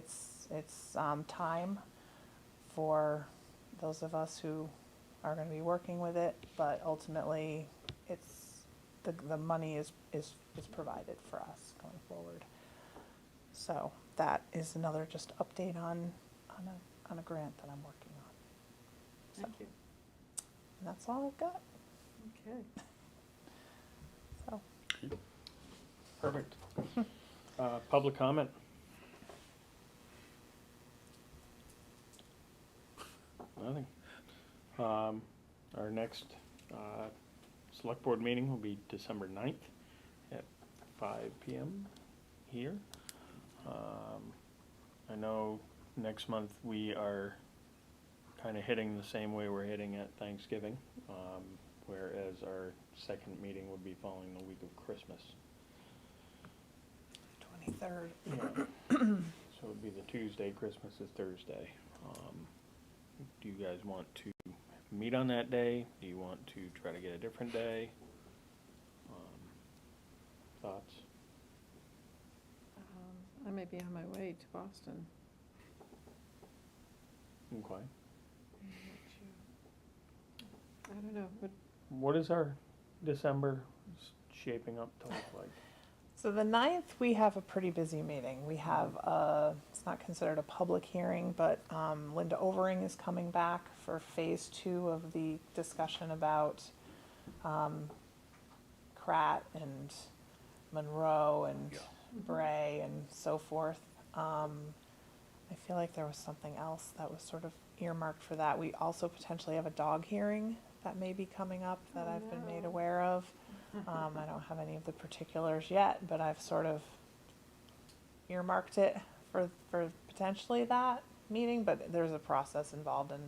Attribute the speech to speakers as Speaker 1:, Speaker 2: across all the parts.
Speaker 1: It's, it's um, time for those of us who are going to be working with it, but ultimately, it's, the, the money is, is, is provided for us going forward. So that is another just update on, on a, on a grant that I'm working on.
Speaker 2: Thank you.
Speaker 1: And that's all I've got,
Speaker 2: Okay.
Speaker 1: so.
Speaker 3: Perfect. Uh, Public comment? Nothing. Um, Our next uh, Select Board meeting will be December 9th at five PM here. Um, I know next month we are kind of hitting the same way we're hitting at Thanksgiving, um, whereas our second meeting would be following the week of Christmas.
Speaker 1: Twenty-third.
Speaker 3: Yeah. So it'd be the Tuesday, Christmas is Thursday. Um, Do you guys want to meet on that day? Do you want to try to get a different day? Um, Thoughts?
Speaker 2: Um, I may be on my way to Boston.
Speaker 3: Okay.
Speaker 2: I'm not sure. I don't know, but
Speaker 3: What is our December s- shaping up to look like?
Speaker 1: So the ninth, we have a pretty busy meeting. We have a, it's not considered a public hearing, but um, Linda Overing is coming back for phase two of the discussion about um, Pratt and Monroe and Bray and so forth. Um, I feel like there was something else that was sort of earmarked for that. We also potentially have a dog hearing that may be coming up that
Speaker 2: Oh,
Speaker 1: I've been made
Speaker 2: no.
Speaker 1: aware of. Um, I don't have any of the particulars yet, but I've sort of earmarked it for, for potentially that meeting, but there's a process involved in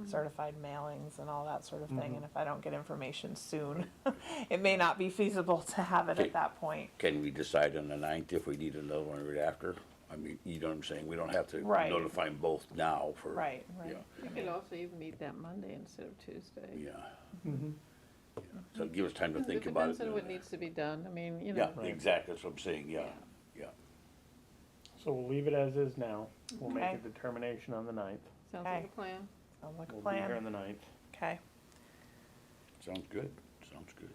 Speaker 2: Mm-hmm.
Speaker 1: certified mailings and all that sort of thing.
Speaker 4: Mm-hmm.
Speaker 3: Mhm.
Speaker 1: And if I don't get information soon, it may not be feasible to have it
Speaker 4: Okay.
Speaker 1: at that point.
Speaker 4: Can we decide on the ninth if we need another one right after? I mean, you know what I'm saying, we don't have to
Speaker 1: Right.
Speaker 4: notify 'em both now for.
Speaker 1: Right,
Speaker 4: Yeah,
Speaker 1: right.
Speaker 2: we could also even meet that Monday instead of Tuesday.
Speaker 4: yeah.
Speaker 3: Mm-hmm.
Speaker 4: So give us time to think about it.
Speaker 2: depends on what needs to be done, I mean, you
Speaker 4: Yeah,
Speaker 2: know.
Speaker 3: Right.
Speaker 4: exactly, that's what I'm saying, yeah, yeah.
Speaker 3: So we'll leave it as is now. We'll make a
Speaker 1: Okay.
Speaker 3: determination on the ninth.
Speaker 2: Sounds like
Speaker 1: Okay.
Speaker 2: a plan.
Speaker 1: Sounds like a
Speaker 3: We'll be here on
Speaker 1: plan.
Speaker 3: the ninth.
Speaker 1: Okay.
Speaker 4: Sounds good, sounds good.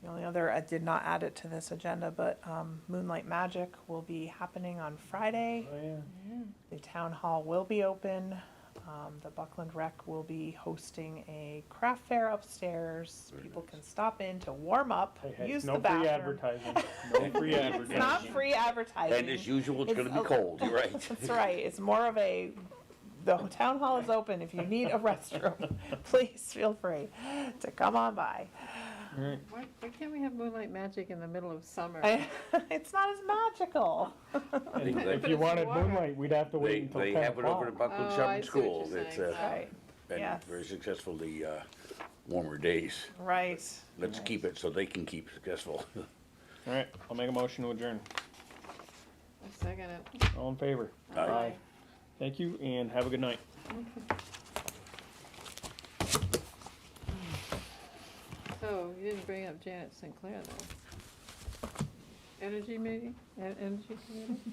Speaker 1: The only other, I did not add it to this agenda, but um, Moonlight Magic will be happening on Friday.
Speaker 3: Oh, yeah.
Speaker 1: The town hall will be open. Um, The Buckland Rec will be hosting a craft fair upstairs.
Speaker 4: Very
Speaker 1: People
Speaker 4: nice.
Speaker 1: can stop in to warm up,
Speaker 3: Hey, hey,
Speaker 1: use
Speaker 3: no
Speaker 1: the
Speaker 3: free
Speaker 1: bathroom.
Speaker 3: advertising. No free
Speaker 1: It's not
Speaker 3: advertising.
Speaker 1: free advertising.
Speaker 4: And as usual, it's
Speaker 1: It's
Speaker 4: gonna be
Speaker 1: a-
Speaker 4: cold, you're right.
Speaker 1: That's right. It's more of a, the town hall is open. If you need a restroom, please feel free to come on by.
Speaker 3: All right.
Speaker 2: Why, why can't we have moonlight magic in the middle of summer?
Speaker 1: I, it's not as magical.
Speaker 3: And
Speaker 4: They-
Speaker 3: If
Speaker 2: But
Speaker 3: you
Speaker 2: it's
Speaker 3: wanted
Speaker 2: water.
Speaker 3: moonlight, we'd have to wait
Speaker 4: They,
Speaker 3: until
Speaker 4: they
Speaker 3: ten
Speaker 4: have it over at
Speaker 3: o'clock.
Speaker 4: Buckland
Speaker 2: Oh, I
Speaker 4: Shopping
Speaker 2: see what
Speaker 4: School,
Speaker 2: you're
Speaker 4: it's,
Speaker 2: saying.
Speaker 4: uh,
Speaker 1: Right.
Speaker 4: been
Speaker 1: Yes.
Speaker 4: very successful the, uh, warmer days.
Speaker 1: Right.
Speaker 4: Let's keep it so they can keep successful.
Speaker 3: All right, I'll make a motion to adjourn.
Speaker 2: I second it.
Speaker 3: All in favor?
Speaker 4: Aye.
Speaker 2: Aye.
Speaker 3: Thank you and have a good night.
Speaker 2: So you didn't bring up Janet Sinclair though. Energy meeting, E- energy committee?